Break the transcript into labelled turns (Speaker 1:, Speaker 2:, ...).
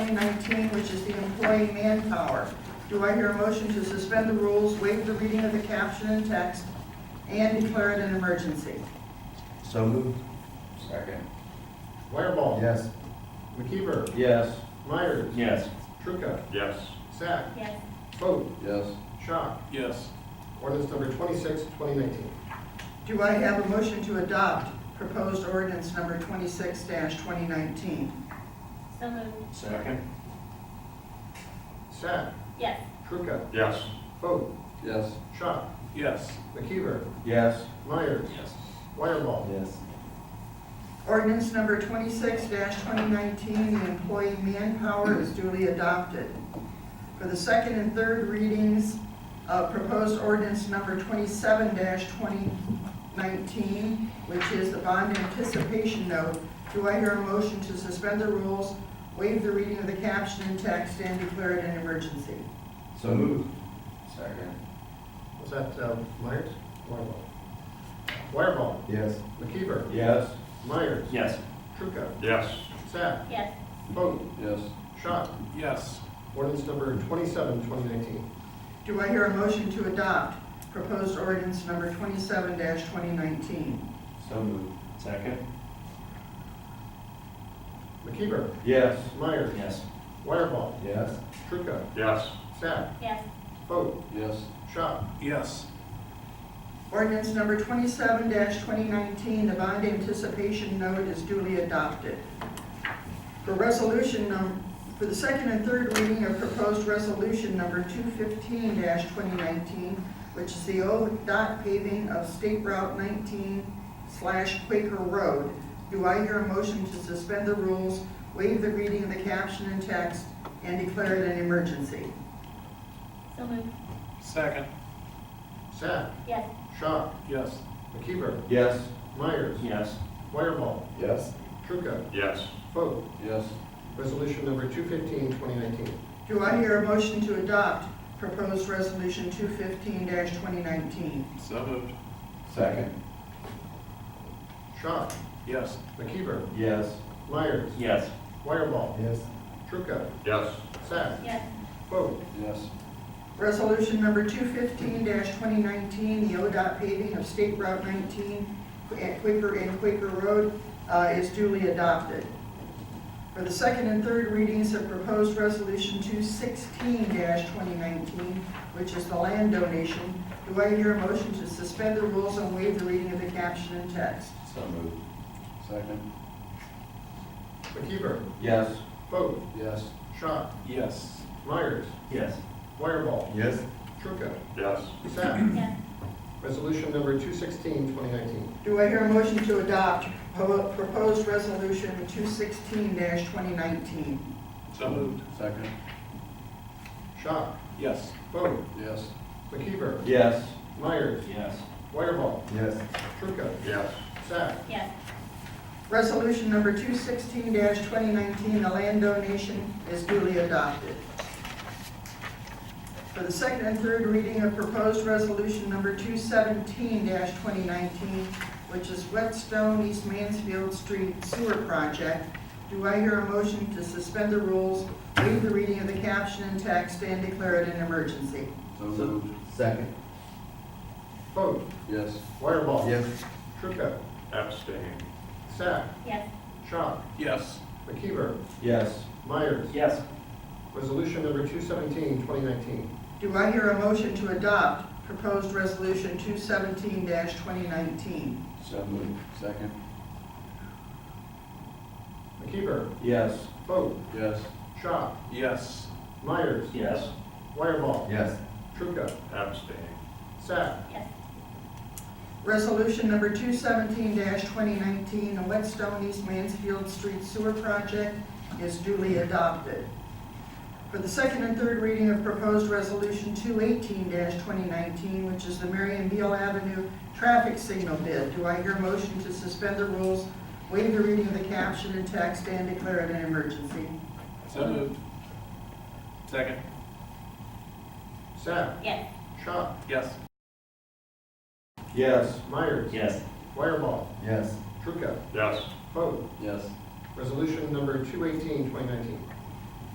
Speaker 1: 2019, which is the employee manpower. Do I hear a motion to suspend the rules, waive the reading of the caption and text, and declare it an emergency?
Speaker 2: So moved.
Speaker 3: Second.
Speaker 4: Wireball.
Speaker 2: Yes.
Speaker 4: McKeever.
Speaker 2: Yes.
Speaker 4: Myers.
Speaker 3: Yes.
Speaker 4: Trucca.
Speaker 5: Yes.
Speaker 4: Sack.
Speaker 6: yes,
Speaker 4: Foote.
Speaker 2: Yes.
Speaker 4: Shock.
Speaker 5: Yes.
Speaker 4: Ordinance number 26, 2019.
Speaker 1: Do I have a motion to adopt proposed ordinance number 26-2019?
Speaker 6: so moved,
Speaker 5: Second.
Speaker 4: Sack.
Speaker 6: yes,
Speaker 4: Trucca.
Speaker 5: Yes.
Speaker 4: Foote.
Speaker 2: Yes.
Speaker 4: Shock.
Speaker 5: Yes.
Speaker 4: McKeever.
Speaker 2: Yes.
Speaker 4: Myers.
Speaker 5: Yes.
Speaker 4: Wireball.
Speaker 2: Yes.
Speaker 1: Ordinance number twenty-six twenty nineteen, the employee manpower is duly adopted. For the second and third readings, uh, proposed ordinance number twenty-seven twenty nineteen, which is the bond anticipation note, do I hear a motion to suspend the rules, waive the reading of the caption and text, and declare it an emergency?
Speaker 2: So moved.
Speaker 3: Second.
Speaker 4: Was that uh, Myers? Wireball. Wireball.
Speaker 2: Yes.
Speaker 4: McKeever.
Speaker 2: Yes.
Speaker 4: Myers.
Speaker 3: Yes.
Speaker 4: Trucca.
Speaker 5: Yes.
Speaker 4: Sack.
Speaker 6: yes,
Speaker 4: Foote.
Speaker 2: Yes.
Speaker 4: Shock.
Speaker 5: Yes.
Speaker 4: Ordinance number 27, 2019.
Speaker 1: Do I hear a motion to adopt proposed ordinance number twenty-seven twenty nineteen?
Speaker 2: So moved.
Speaker 3: Second.
Speaker 4: McKeever.
Speaker 2: Yes.
Speaker 4: Myers.
Speaker 3: Yes.
Speaker 4: Wireball.
Speaker 2: Yes.
Speaker 4: Trucca.
Speaker 5: Yes.
Speaker 4: Sack.
Speaker 6: yes,
Speaker 4: Foote.
Speaker 2: Yes.
Speaker 4: Shock.
Speaker 5: Yes.
Speaker 1: Ordinance number twenty-seven twenty nineteen, the bond anticipation note is duly adopted. For resolution num, for the second and third reading of proposed resolution number two fifteen twenty nineteen, which is the ODOT paving of State Route nineteen slash Quaker Road, do I hear a motion to suspend the rules, waive the reading of the caption and text, and declare it an emergency?
Speaker 6: so moved,
Speaker 5: Second.
Speaker 4: Sack.
Speaker 6: yes,
Speaker 4: Shock.
Speaker 5: Yes.
Speaker 4: McKeever.
Speaker 2: Yes.
Speaker 4: Myers.
Speaker 3: Yes.
Speaker 4: Wireball.
Speaker 2: Yes.
Speaker 4: Trucca.
Speaker 5: Yes.
Speaker 4: Foote.
Speaker 2: Yes.
Speaker 4: Resolution number 215, 2019.
Speaker 1: Do I hear a motion to adopt proposed resolution two fifteen twenty nineteen?
Speaker 5: So moved.
Speaker 2: Second.
Speaker 4: Shock.
Speaker 5: Yes.
Speaker 4: McKeever.
Speaker 2: Yes.
Speaker 4: Myers.
Speaker 3: Yes.
Speaker 4: Wireball.
Speaker 2: Yes.
Speaker 4: Trucca.
Speaker 5: Yes.
Speaker 4: Sack.
Speaker 6: yes,
Speaker 4: Foote.
Speaker 2: Yes.
Speaker 1: Resolution number two fifteen twenty nineteen, the ODOT paving of State Route nineteen at Quaker and Quaker Road, uh, is duly adopted. For the second and third readings of proposed resolution two sixteen twenty nineteen, which is the land donation, do I hear a motion to suspend the rules and waive the reading of the caption and text?
Speaker 3: So moved.
Speaker 2: Second.
Speaker 4: McKeever.
Speaker 2: Yes.
Speaker 4: Foote.
Speaker 2: Yes.
Speaker 4: Shock.
Speaker 5: Yes.
Speaker 4: Myers.
Speaker 3: Yes.
Speaker 4: Wireball.
Speaker 2: Yes.
Speaker 4: Trucca.
Speaker 5: Yes.
Speaker 4: Sack.
Speaker 6: yes,
Speaker 4: Resolution number 216, 2019.
Speaker 1: Do I hear a motion to adopt po- proposed resolution two sixteen twenty nineteen?
Speaker 5: So moved.
Speaker 2: Second.
Speaker 4: Shock.
Speaker 5: Yes.
Speaker 4: Foote.
Speaker 2: Yes.
Speaker 4: McKeever.
Speaker 2: Yes.
Speaker 4: Myers.
Speaker 3: Yes.
Speaker 4: Wireball.
Speaker 2: Yes.
Speaker 4: Trucca.
Speaker 5: Yes.
Speaker 4: Sack.
Speaker 6: yes,
Speaker 1: Resolution number two sixteen twenty nineteen, the land donation is duly adopted. For the second and third reading of proposed resolution number two seventeen twenty nineteen, which is Whetstone East Mansfield Street Sewer Project, do I hear a motion to suspend the rules, waive the reading of the caption and text, and declare it an emergency?
Speaker 2: So moved. Second.
Speaker 4: Foote.
Speaker 2: Yes.
Speaker 4: Wireball.
Speaker 2: Yes.
Speaker 4: Trucca.
Speaker 5: Abstain.
Speaker 4: Sack.
Speaker 6: yes,
Speaker 4: Shock.
Speaker 5: Yes.
Speaker 4: McKeever.
Speaker 2: Yes.
Speaker 4: Myers.
Speaker 3: Yes.
Speaker 4: Resolution number 217, 2019.
Speaker 1: Do I hear a motion to adopt proposed resolution two seventeen twenty nineteen?
Speaker 2: So moved. Second.
Speaker 4: McKeever.
Speaker 2: Yes.
Speaker 4: Foote.
Speaker 2: Yes.
Speaker 4: Shock.
Speaker 5: Yes.
Speaker 4: Myers.
Speaker 3: Yes.
Speaker 4: Wireball.
Speaker 2: Yes.
Speaker 4: Trucca.
Speaker 5: Abstain.
Speaker 4: Sack.
Speaker 6: yes,
Speaker 1: Resolution number two seventeen twenty nineteen, the Whetstone East Mansfield Street Sewer Project is duly adopted. For the second and third reading of proposed resolution two eighteen twenty nineteen, which is the Marion Beal Avenue traffic signal bid, do I hear a motion to suspend the rules, waive the reading of the caption and text, and declare it an emergency?
Speaker 5: So moved. Second.
Speaker 4: Sack.
Speaker 6: yes,
Speaker 4: Shock.
Speaker 5: Yes.
Speaker 2: Yes.
Speaker 4: Myers.
Speaker 3: Yes.
Speaker 4: Wireball.
Speaker 2: Yes.
Speaker 4: Trucca.
Speaker 5: Yes.
Speaker 4: Foote.
Speaker 2: Yes.
Speaker 4: Resolution number 218, 2019.